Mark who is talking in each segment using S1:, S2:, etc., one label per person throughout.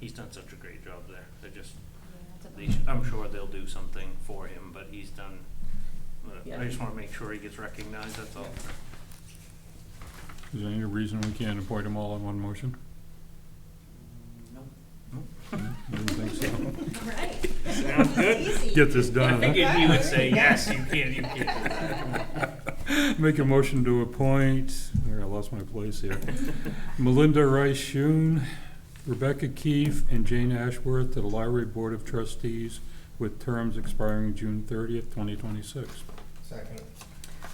S1: he's done such a great job there. They're just,
S2: Yeah,
S1: they
S2: that's
S1: sh-
S2: a bummer.
S1: I'm sure they'll do something for him, but he's done, uh,
S2: Yeah.
S1: I just wanna make sure he gets recognized, that's all.
S3: Is there any reason we can't appoint them all in one motion?
S2: Nope.
S3: Didn't think so.
S2: All right.
S1: Sounds good.
S2: Easy.
S3: Get this
S1: I
S3: done, huh?
S1: figured he would say, yes, you can, you can. do that." Come on."
S3: Make a motion to appoint, where I lost my place here, Melinda Rice Shoon, Rebecca Keefe, and Jane Ashworth to the Library Board of Trustees with terms expiring June thirtieth, twenty twenty-six.
S4: Second.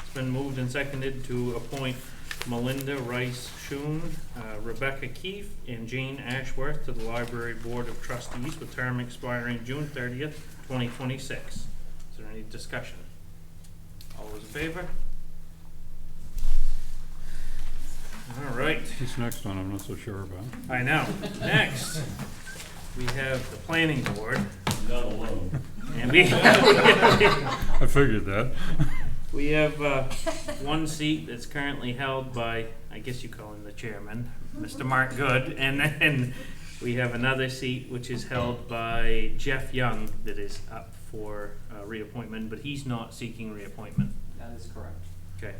S1: It's been moved and seconded to appoint Melinda Rice Shoon, uh, Rebecca Keefe, and Jane Ashworth to the Library Board of Trustees with term expiring June thirtieth, twenty twenty-six. Is there any discussion? All those in favor? All right,
S3: This next one I'm not so sure about.
S1: I know. Next, we have the Planning Board. And we,
S3: I figured that.
S1: we have, uh, one seat that's currently held by, I guess you call him the chairman, Mr. Mark Good, and then we have another seat which is held by Jeff Young that is up for uh, reappointment, but he's not seeking reappointment.
S5: That is correct.
S1: Okay,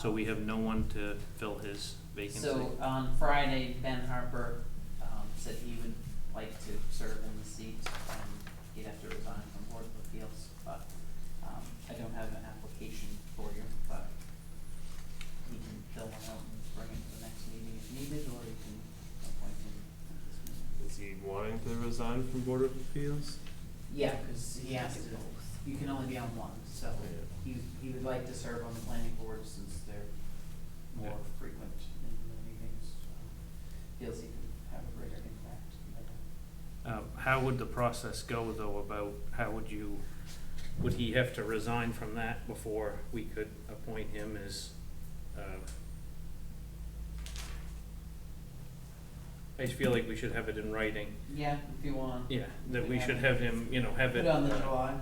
S1: so we have no one to fill his vacancy.
S5: So on Friday, Ben Harper, um, said he would like to serve in the seat, um, he'd have to resign from Board of Appeals, but, um, I don't have an application for you, but he can fill one out and bring it to the next meeting if needed, or you can appoint him at this meeting.
S4: Is he wanting to resign from Board of Appeals?
S5: Yeah, cause he has to, you can only be on one, so he, he would like to serve on the planning board since they're more
S1: Yeah.
S5: frequent in the meetings, so feels he could have a greater impact. than-
S1: Uh, How would the process go though about, how would you, would he have to resign from that before we could appoint him as, uh, I just feel like we should have it in writing,
S5: Yeah, if you want,
S1: yeah, uh, that we should have him, you know, have
S5: put
S1: it.
S5: on the July,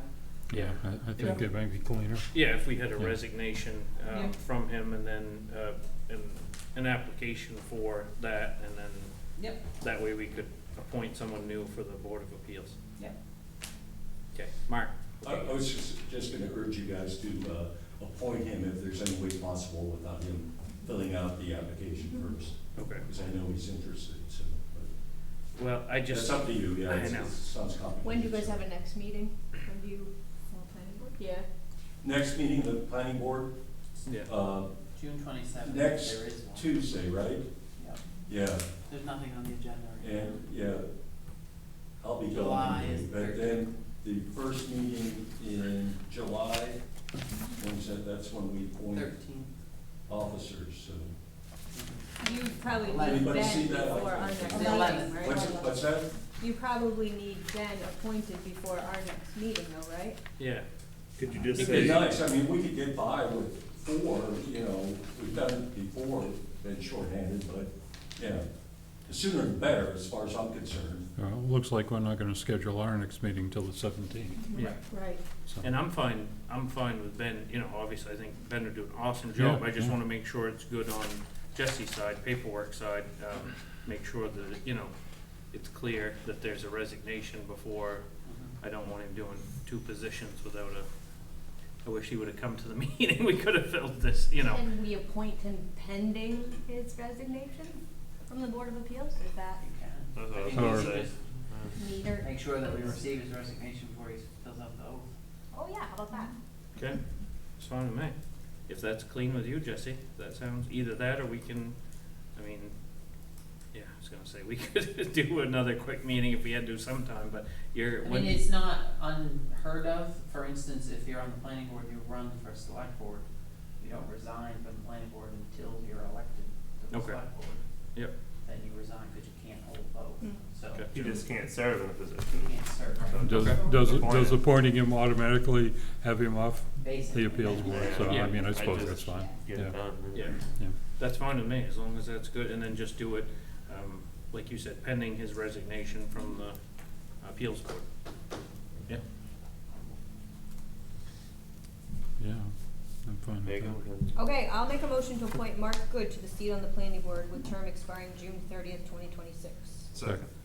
S3: Yeah, I, I think that might be cleaner.
S1: Yeah, if we had a
S3: Yeah.
S1: resignation,
S5: Yeah.
S1: um, from him and then, uh, an, an application for that and then
S5: yep,
S1: that way we could appoint someone new for the Board of Appeals.
S5: yep,
S1: Okay, Mark?
S6: I, I was just, just gonna urge you guys to, uh, appoint him if there's any way possible without him filling out the application
S2: Mm-hmm.
S6: first,
S1: Okay.
S6: because I know he's interested, so. but
S1: Well, I
S6: It's
S1: just,
S6: up to you, yeah,
S1: I
S6: it's-
S1: know.
S6: it sounds complicated.
S2: When do you guys
S6: so.
S2: have a next meeting? When do you, for planning board? Yeah.
S6: Next meeting, the planning board,
S1: yeah,
S6: uh,
S5: June twenty-seventh, there
S6: Next
S5: is one.
S6: Tuesday, right?
S5: Yep,
S6: Yeah,
S5: there's nothing on the agenda. right now.
S6: and, yeah, I'll be
S5: July
S6: going,
S5: is
S6: but then the first meeting in July, when's that, that's when we appoint
S5: Thirteenth.
S6: officers, so.
S2: You probably
S5: Anybody
S2: need Ben
S6: see that?
S2: before our next
S5: The
S2: meeting,
S5: eleventh.
S2: right?
S6: What's, what's that?
S2: You probably need Ben appointed before our next meeting though, right?
S1: yeah.
S4: Could you just
S6: It'd be
S4: say,
S6: nice, I mean, we could get by with four, you know, we've done it before, been shorthanded, but, you know, the sooner the better, as far as I'm concerned.
S3: Uh, looks like we're not gonna schedule our next meeting till the seventeenth,
S1: Yeah.
S2: Right.
S3: so.
S1: And I'm fine, I'm fine with Ben, you know, obviously, I think Ben would do an awesome job,
S3: Yeah,
S1: I just
S3: yeah.
S1: wanna make sure it's good on Jesse's side, paperwork side, um, make sure that, you know, it's clear that there's a resignation before, I don't want him doing two positions without a, I wish he would've come to the meeting, we could've filled this, you know,
S2: And we appoint him pending his resignation from the Board of Appeals, is that
S5: You can.
S1: That's what I
S5: I
S1: was
S5: think we
S3: gonna
S5: should
S1: say.
S5: just
S2: neater?
S5: Make sure that we receive his resignation before he fills out the oath.
S2: Oh, yeah, how about that?
S1: okay, it's fine with me. If that's clean with you, Jesse, that sounds, either that or we can, I mean, yeah, I was gonna say, we could do another quick meeting if we had to sometime, but you're,
S5: I mean,
S1: when,
S5: it's not unheard of, for instance, if you're on the planning board, you run for select board. You don't resign from the planning board until you're elected to the
S1: Okay.
S5: select board.
S1: Yep.
S5: Then you resign because you can't hold both,
S2: Mm.
S5: so
S1: Okay.
S4: you just can't serve in a
S5: you
S4: position?
S5: can't serve,
S3: Does,
S1: Okay.
S3: does,
S4: Appointed.
S3: does appointing him automatically have him off
S5: basically.
S3: the appeals board? So,
S1: Yeah.
S3: I mean,
S4: I
S3: I suppose
S4: just-
S3: that's fine,
S4: Get it
S3: yeah.
S4: done.
S1: yeah,
S3: yeah.
S1: that's fine with me, as long as that's good, and then just do it, um, like you said, pending his resignation from the appeals court. Yeah,
S3: Yeah, I'm fine
S4: There you
S3: with that.
S4: go.
S2: Okay, I'll make a motion to appoint Mark Good to the seat on the planning board with term expiring June thirtieth, twenty twenty-six.
S4: Second.